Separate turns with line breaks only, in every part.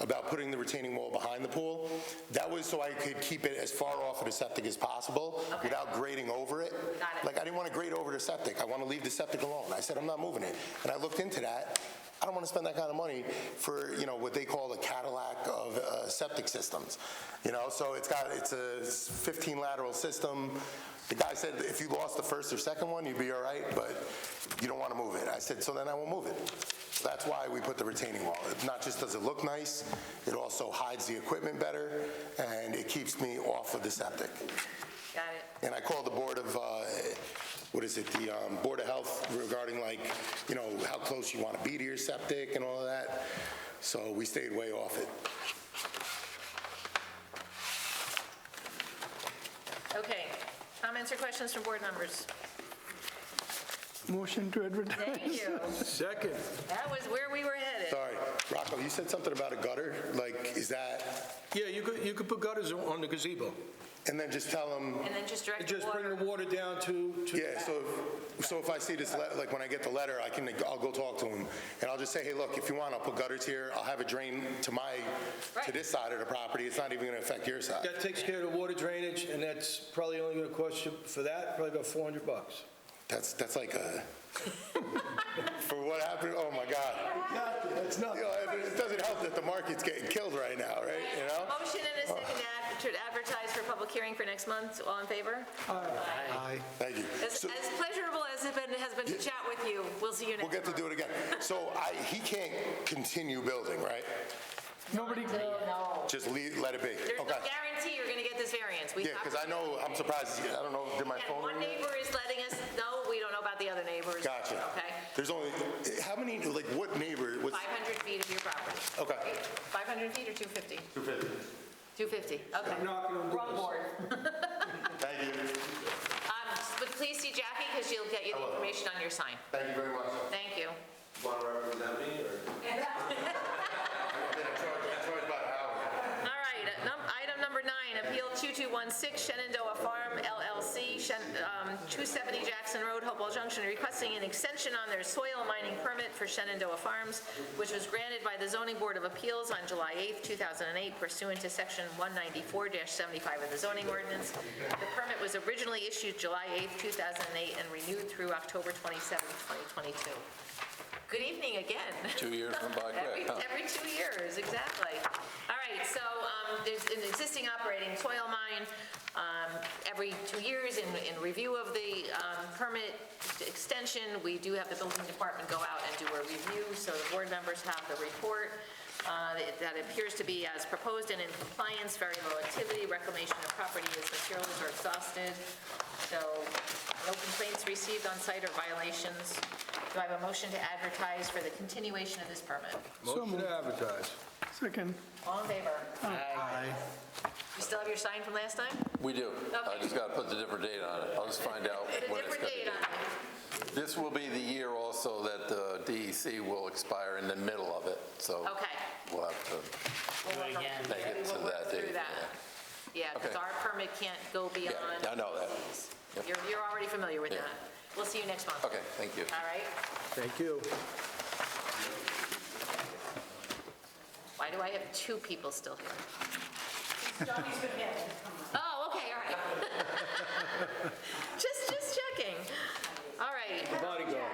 about putting the retaining wall behind the pool. That was so I could keep it as far off of the septic as possible without grading over it.
Got it.
Like, I didn't want to grade over the septic. I want to leave the septic alone. I said, I'm not moving it. And I looked into that. I don't want to spend that kind of money for, you know, what they call the Cadillac of uh, septic systems. You know, so it's got, it's a 15 lateral system. The guy said, if you lost the first or second one, you'd be all right, but you don't want to move it. I said, so then I won't move it. So That's why we put the retaining wall. It Not just does it look nice, it also hides the equipment better, and it keeps me off of the septic.
Got it.
And I called the Board of, uh, what is it, the um, Board of Health regarding like, you know, how close you want to be to your septic and all of that. So we stayed way off it.
Okay. Comments or questions from board members?
Motion to advertise.
Thank you.
Second.
That was where we were headed.
Sorry, Rocco, you said something about a gutter, like, is that,
Yeah, you could, you could put gutters on- on the gazebo.
and then just tell them,
And then just direct
And
the
just bring
water.
the water down to, to
Yeah, so, so if I see this, le- like, when I get the letter, I can, I'll go talk to him, and I'll just say, hey, look, if you want, I'll put gutters here, I'll have a drain to my, to
Right.
this side of the property, it's not even gonna affect your side.
That takes care of the water drainage, and that's probably only going to cost you, for that, probably about 400 bucks.
That's, that's like a, for what happened, oh my God.
That's not.
You know, it it doesn't help that the market's getting killed right now, right, you know?
Motion and a second ad- to advertise for public hearing for next month. All in favor?
Thank you.
As
So-
as pleasurable as it been- has been to chat with you, we'll see you next
We'll
month.
get to do it again. So I, he can't continue building, right?
Nobody,
Just leave, let it be,
There's no
okay?
guarantee you're going to get this variance. We
Yeah,
talked
because I know, I'm surprised, I don't know, did my
And
phone ring?
one neighbor is letting us know, we don't know about the other neighbors.
Gotcha.
Okay?
There's only, how many, like, what neighbor, what's,
500 feet of your property.
Okay.
Right? 500 feet or 250? 250. 250, okay. Wrong board.
thank you,
Um, But please see Jackie, because she'll get you the information on your sign.
thank you very much.
Thank you.
Want to represent me, or?
All right, uh, num- item number nine, Appeal 2216 Shenandoah Farm LLC, Shen- um, 270 Jackson Road, Hopewell Junction, requesting an extension on their soil mining permit for Shenandoah Farms, which was granted by the Zoning Board of Appeals on July 8, 2008 pursuant to Section 194-75 of the zoning ordinance. The permit was originally issued July 8, 2008, and renewed through October 27, 2022. Good evening again.
Two years went by
Every,
quick, huh?
every two years, exactly. All right, so um, there's an existing operating soil mine. um, Every two years, in, in review of the um, permit extension, we do have the building department go out and do a review, so the board members have the report. uh, That appears to be as proposed and in compliance, very low activity, reclamation of property as materials are exhausted. So no complaints received on site or violations. Do I have a motion to advertise for the continuation of this permit?
Motion to advertise.
second.
All in favor? You still have your sign from last time?
We do. I
Okay.
just got to put the different date on it. I'll just find out
Put a
when it's
different
going to
date on
be.
it.
This will be the year also that the DEC will expire in the middle of it, so.
Okay.
We'll have to,
We'll work on-
Make it
we will
to
work
that
through
date,
that. Yeah, because
Okay.
our permit can't go beyond.
yeah, I know that.
You're, you're already familiar with
Yeah.
that. We'll see you next month.
Okay, thank you.
All right?
Thank you.
Why do I have two people still here? Oh, okay, all right. Just, just checking. All right.
Bodyguard.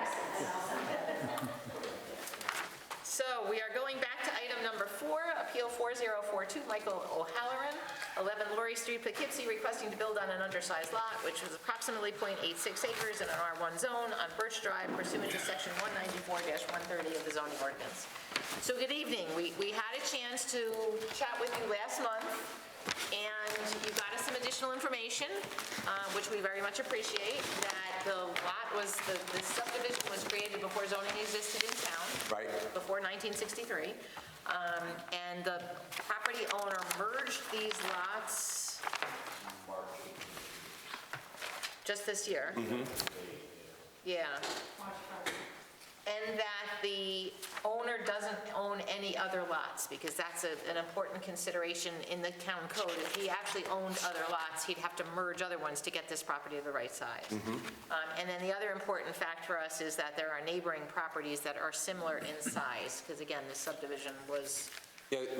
So we are going back to item number four, Appeal 4042, Michael O'Halloran, 11 Laurie Street, Poughkeepsie, requesting to build on an undersized lot, which is approximately .86 acres in an R1 zone on Birch Drive pursuant to Section 194-130 of the zoning ordinance. So good evening. We we had a chance to chat with you last month. And you got us some additional information, uh, which we very much appreciate, that the lot was, the the subdivision was created before zoning existed in town.
Right.
Before 1963. Um, And the property owner merged these lots just this year. Yeah. And that the owner doesn't own any other lots, because that's a- an important consideration in the town code. If he actually owned other lots, he'd have to merge other ones to get this property to the right size. Um, And then the other important fact for us is that there are neighboring properties that are similar in size, because again, this subdivision was
Yeah,